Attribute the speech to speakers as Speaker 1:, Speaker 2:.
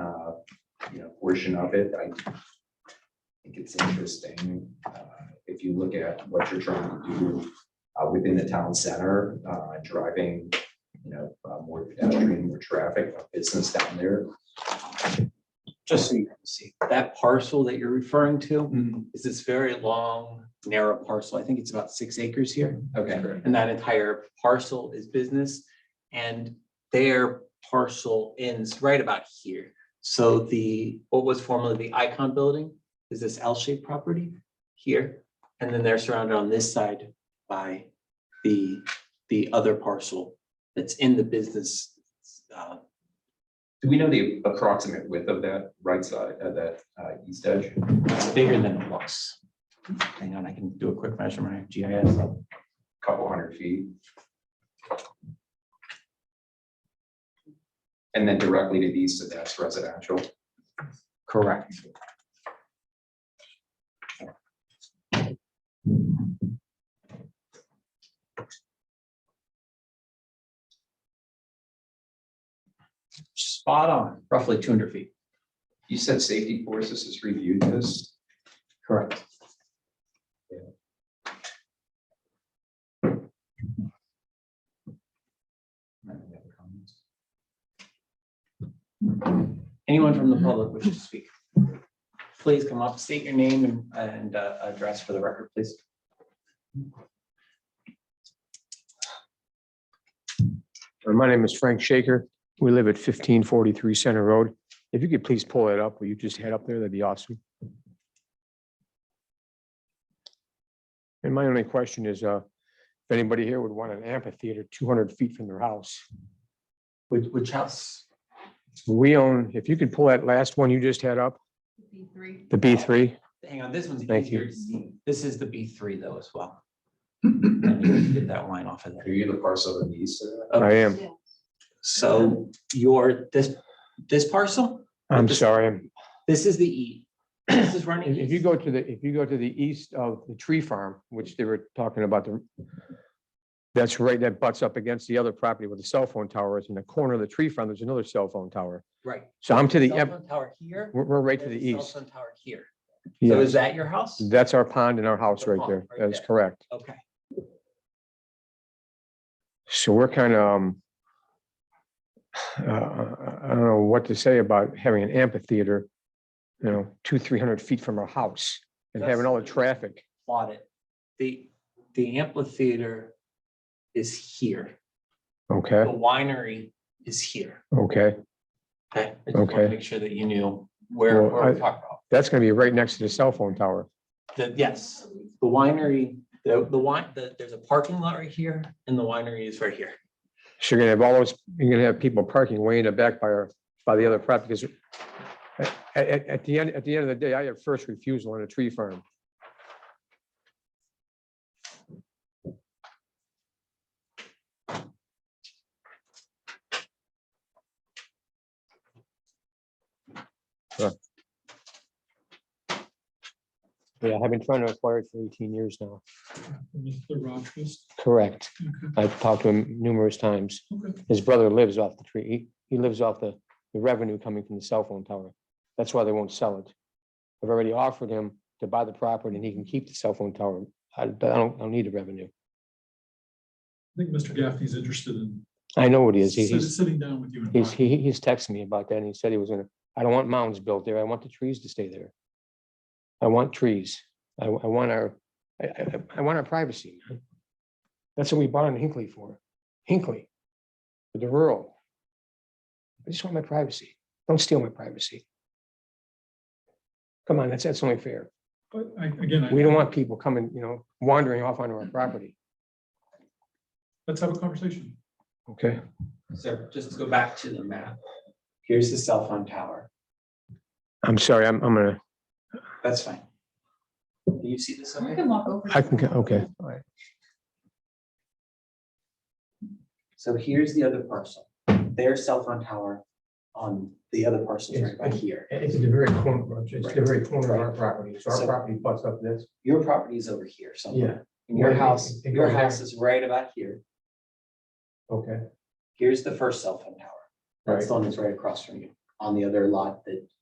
Speaker 1: uh, you know, portion of it, I think it's interesting. uh, If you look at what you're trying to do uh, within the town center, uh, driving, you know, uh, more pedestrian, more traffic, more business down there.
Speaker 2: just so you can see, that parcel that you're referring
Speaker 1: Hmm.
Speaker 2: to is this very long, narrow parcel. I think it's about six acres here.
Speaker 1: Okay,
Speaker 2: And that entire parcel is business. And their parcel ends right about here. So the, what was formerly the Icon Building is this L-shaped property here. And then they're surrounded on this side by the, the other parcel that's in the business. uh,
Speaker 1: do we know the approximate width of that right side, of that uh, east edge?
Speaker 2: It's bigger than it looks. Hang on, I can do a quick measurement. I have GIS.
Speaker 1: couple hundred feet. And then directly to the east of that's residential.
Speaker 2: Correct. Spot on, roughly two hundred feet.
Speaker 1: You said safety forces has reviewed this.
Speaker 2: Correct. Anyone from the public wishing to speak? Please come up, state your name and- and uh, address for the record, please.
Speaker 3: Uh, My name is Frank Shaker. We live at fifteen forty-three Center Road. If you could please pull it up, will you just head up there? That'd be awesome. And my only question is, uh, if anybody here would want an amphitheater two hundred feet from their house?
Speaker 2: Which, which house?
Speaker 3: We own, if you could pull that last one you just had up,
Speaker 4: B three.
Speaker 3: the B three,
Speaker 2: Hang on, this one's
Speaker 3: Thank you.
Speaker 2: easier to see. This is the B three though as well. Let me Get that line off of
Speaker 1: Are
Speaker 2: there.
Speaker 1: you the parcel in the east of that?
Speaker 3: I am,
Speaker 2: So your, this, this parcel,
Speaker 3: I'm sorry. I'm-
Speaker 2: this is the E. This is running.
Speaker 3: If if you
Speaker 2: east.
Speaker 3: go to the, if you go to the east of the tree farm, which they were talking about, the that's right, that butts up against the other property where the cell phone tower is. In the corner of the tree farm, there's another cell phone tower.
Speaker 2: Right.
Speaker 3: So I'm to the,
Speaker 2: Cell
Speaker 3: em-
Speaker 2: phone tower here.
Speaker 3: we're, we're right to
Speaker 2: and
Speaker 3: the
Speaker 2: cell
Speaker 3: east.
Speaker 2: phone Tower here. So is
Speaker 3: Yes,
Speaker 2: that your house?
Speaker 3: that's our pond and our house
Speaker 2: The
Speaker 3: right
Speaker 2: pond,
Speaker 3: there.
Speaker 2: right
Speaker 3: That is
Speaker 2: there.
Speaker 3: correct.
Speaker 2: Okay,
Speaker 3: So we're kind of, um, uh, I don't know what to say about having an amphitheater, you know, two, three hundred feet from our house and having all the
Speaker 2: That's-
Speaker 3: traffic.
Speaker 2: plot it. The, the amphitheater is here. The
Speaker 3: Okay,
Speaker 2: winery is here.
Speaker 3: okay.
Speaker 2: Okay. I just wanted to
Speaker 3: Okay.
Speaker 2: Make sure that you knew where,
Speaker 3: Well,
Speaker 2: where we're
Speaker 3: I-
Speaker 2: talking about.
Speaker 3: That's going to be right next to the cell phone tower.
Speaker 2: The, yes, the winery, the, the wine, the, there's a parking lot right here and the winery is right here.
Speaker 3: So you're gonna have all those, you're gonna have people parking way in the back by our, by the other property, because at, at, at the end, at the end of the day, I have first refusal on a tree farm. Yeah, Yeah, I've been trying to acquire it for eighteen years now.
Speaker 5: Mr. Rogers.
Speaker 3: Correct.
Speaker 5: Okay.
Speaker 3: I've talked to him numerous times.
Speaker 5: Okay.
Speaker 3: His brother lives off the tree. He- He lives off the, the revenue coming from the cell phone tower. That's why they won't sell it. I've already offered him to buy the property and he can keep the cell phone tower. I I don't, I don't need the revenue.
Speaker 5: I think Mr. Gaffney's interested in
Speaker 3: I know what he is. He-
Speaker 5: sit-
Speaker 3: He's,
Speaker 5: sitting down with you. and
Speaker 3: he's,
Speaker 5: talking.
Speaker 3: he- he's texted me about that and he said he was gonna, I don't want mounds built there. I want the trees to stay there. I want trees. I, I want our, I, I, I want our privacy. man. That's what we bought in Hinckley for, Hinckley, for the rural. I just want my privacy. Don't steal my privacy. Come on, that's, that's only fair.
Speaker 5: But I, again,
Speaker 3: We don't
Speaker 5: I,
Speaker 3: want people coming, you know, wandering off onto our property.
Speaker 5: let's have a conversation.
Speaker 3: Okay.
Speaker 2: So just to go back to the map. Here's the cell phone tower.
Speaker 3: I'm sorry, I'm, I'm gonna,
Speaker 2: That's fine. Do you see this?
Speaker 4: We
Speaker 2: somewhere?
Speaker 4: can walk over.
Speaker 3: I can, okay. all right.
Speaker 2: So here's the other parcel. Their cell phone tower on the other parcel is right by here.
Speaker 3: It's at the very corner, Roger. it's the
Speaker 2: Right.
Speaker 3: very corner of our property, so
Speaker 2: So-
Speaker 3: our property butts up this.
Speaker 2: Your property is over here somewhere. And your
Speaker 3: Right, it-
Speaker 2: house,
Speaker 3: it
Speaker 2: your
Speaker 3: goes there.
Speaker 2: house is right about here.
Speaker 3: Okay.
Speaker 2: Here's the first cell phone tower.
Speaker 3: Right.
Speaker 2: That's the one that's right across from you on the other lot that